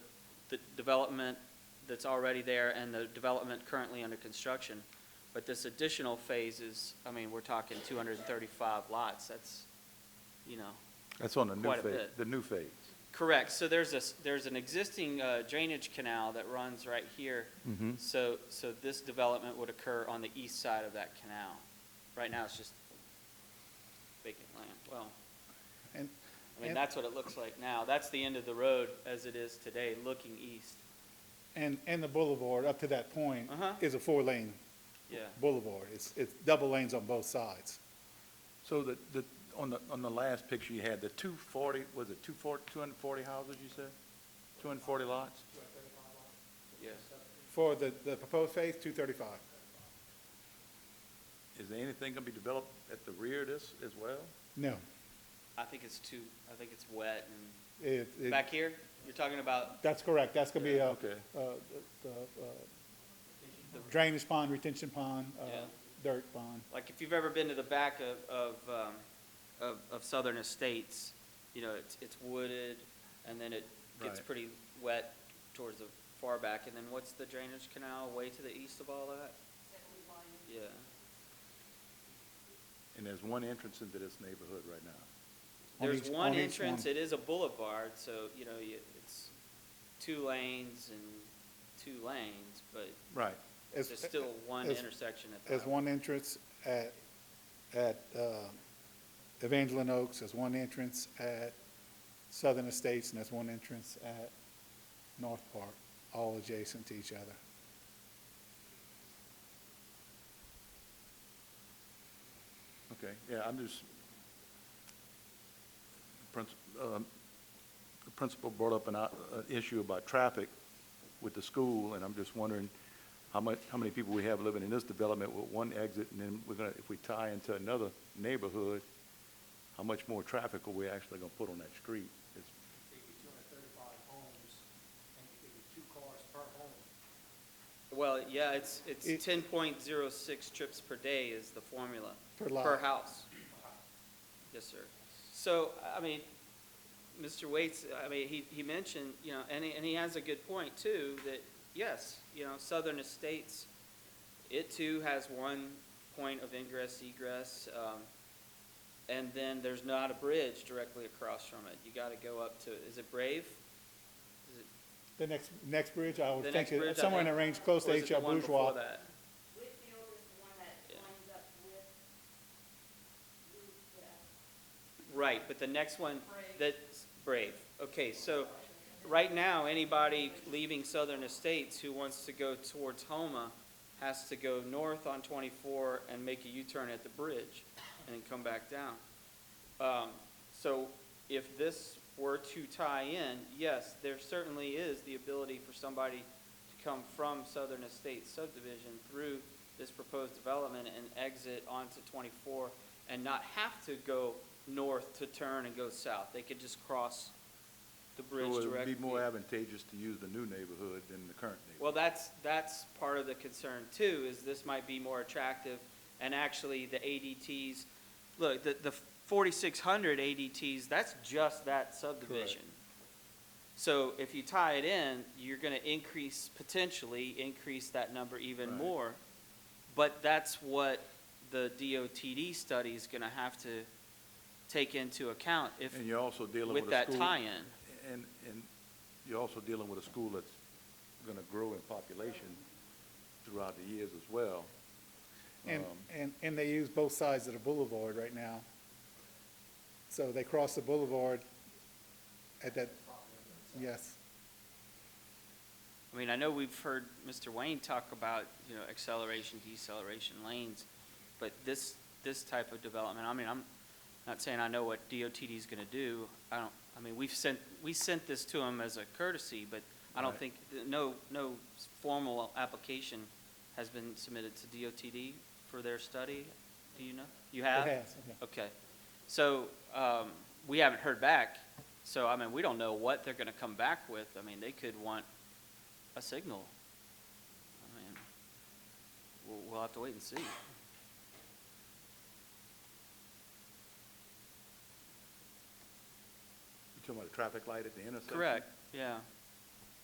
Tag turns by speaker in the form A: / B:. A: the development that's already there and the development currently under construction. But this additional phase is, I mean, we're talking 235 lots, that's, you know,
B: That's on the new
A: Quite a
B: phase,
A: bit.
B: the new phase.
A: correct. So there's a, s- there's an existing uh, drainage canal that runs right here.
B: Mhm.
A: So, so this development would occur on the east side of that canal. Right now, it's just vacant land. Well,
C: And,
A: I mean,
C: and-
A: that's what it looks like now. That's the end of the road as it is today, looking east.
C: and, and the boulevard up to that point
A: Uh-huh.
C: is a four-lane
A: Yeah,
C: boulevard. It's, it's double lanes on both sides.
B: So the, the, on the, on the last picture you had, the two forty, was it two forty, two hundred and forty houses you said? Two hundred and forty lots?
A: yeah.
C: For the, the proposed phase, two thirty-five.
B: Is there anything gonna be developed at the rear of this as well?
C: No.
A: I think it's too, I think it's wet and,
C: It, it,
A: back here, you're talking about,
C: that's correct. That's gonna be a, uh,
B: Okay.
C: the, uh, drainage pond, retention pond, uh,
A: Yeah.
C: dirt pond.
A: like, if you've ever been to the back of, of, um, of, of Southern Estates, you know, it's, it's wooded, and then it gets
B: Right.
A: pretty wet towards the far back, and then what's the drainage canal way to the east of all that? Yeah,
B: And there's one entrance into this neighborhood right now.
C: On
A: there's
C: each-
A: one
C: on each
A: entrance,
C: one.
A: it is a boulevard, so, you know, you, it's two lanes and two lanes, but
B: Right.
C: As-
A: there's still one
C: as-
A: intersection at the
C: There's one entrance at, at uh, Evangeline Oaks, there's one entrance at Southern Estates, and there's one entrance at North Park, all adjacent to each other.
B: Okay, yeah, I'm just, Prince- um, the principal brought up an, o- an issue about traffic with the school, and I'm just wondering how much, how many people we have living in this development with one exit, and then we're gonna, if we tie into another neighborhood, how much more traffic are we actually gonna put on that street? It's-
D: it'd be two hundred thirty-five homes, and it'd be two cars per home.
A: Well, yeah, it's,
C: It-
A: it's ten point zero six trips per day is the formula.
C: Per lot.
A: Per house. Yes, sir. So, I mean, Mr. Waits, I mean, he, he mentioned, you know, and he, and he has a good point too, that, yes, you know, Southern Estates, it too has one point of ingress egress, um, and then there's not a bridge directly across from it. You gotta go up to, is it Brave? Is it
C: The next, next bridge, I
A: the
C: would
A: next
C: think,
A: bridge?
C: it-
A: I
C: somewhere in
A: think,
C: the range close
A: or
C: to
A: is it the
C: H.L.
A: one before
C: Bourgeois.
A: that?
E: Whitfield is the one that
A: Yeah.
E: lines up with, with, uh,
A: Right, but the next one, that's Brave. Okay, so right now, anybody leaving Southern Estates who wants to go towards Homa has to go north on 24 and make a U-turn at the bridge and then come back down. Um, So if this were to tie in, yes, there certainly is the ability for somebody to come from Southern Estates subdivision through this proposed development and exit onto 24 and not have to go north to turn and go south. They could just cross the
B: so
A: bridge
B: It
A: directly.
B: would be more advantageous to use the new neighborhood than the current neighborhood.
A: Well, that's, that's part of the concern too, is this might be more attractive, and actually the ADTs, look, the, the forty-six hundred ADTs, that's just that subdivision. So if you tie it in, you're gonna increase, potentially increase that number even
B: Right.
A: more. But that's what the DOTD study is gonna have to take into account if,
B: And you're also dealing with a
A: with
B: school.
A: that tie-in.
B: And, and you're also dealing with a school that's gonna grow in population throughout the years as well.
C: And,
B: Um,
C: and, and they use both sides of the boulevard right now. So they cross the boulevard at that, yes.
A: I mean, I know we've heard Mr. Wayne talk about, you know, acceleration, deceleration lanes, but this, this type of development, I mean, I'm not saying I know what DOTD is gonna do. I don't, I mean, we've sent, we sent this to them as a courtesy, but I don't
B: Right.
A: think, no, no formal application has been submitted to DOTD for their study. Do you know? You have?
C: It has, okay.
A: Okay. So, um, we haven't heard back, so, I mean, we don't know what they're gonna come back with. I mean, they could want a signal. I mean, we'll, we'll have to wait and see.
B: You talking about a traffic light at the intersection?
A: Correct, yeah.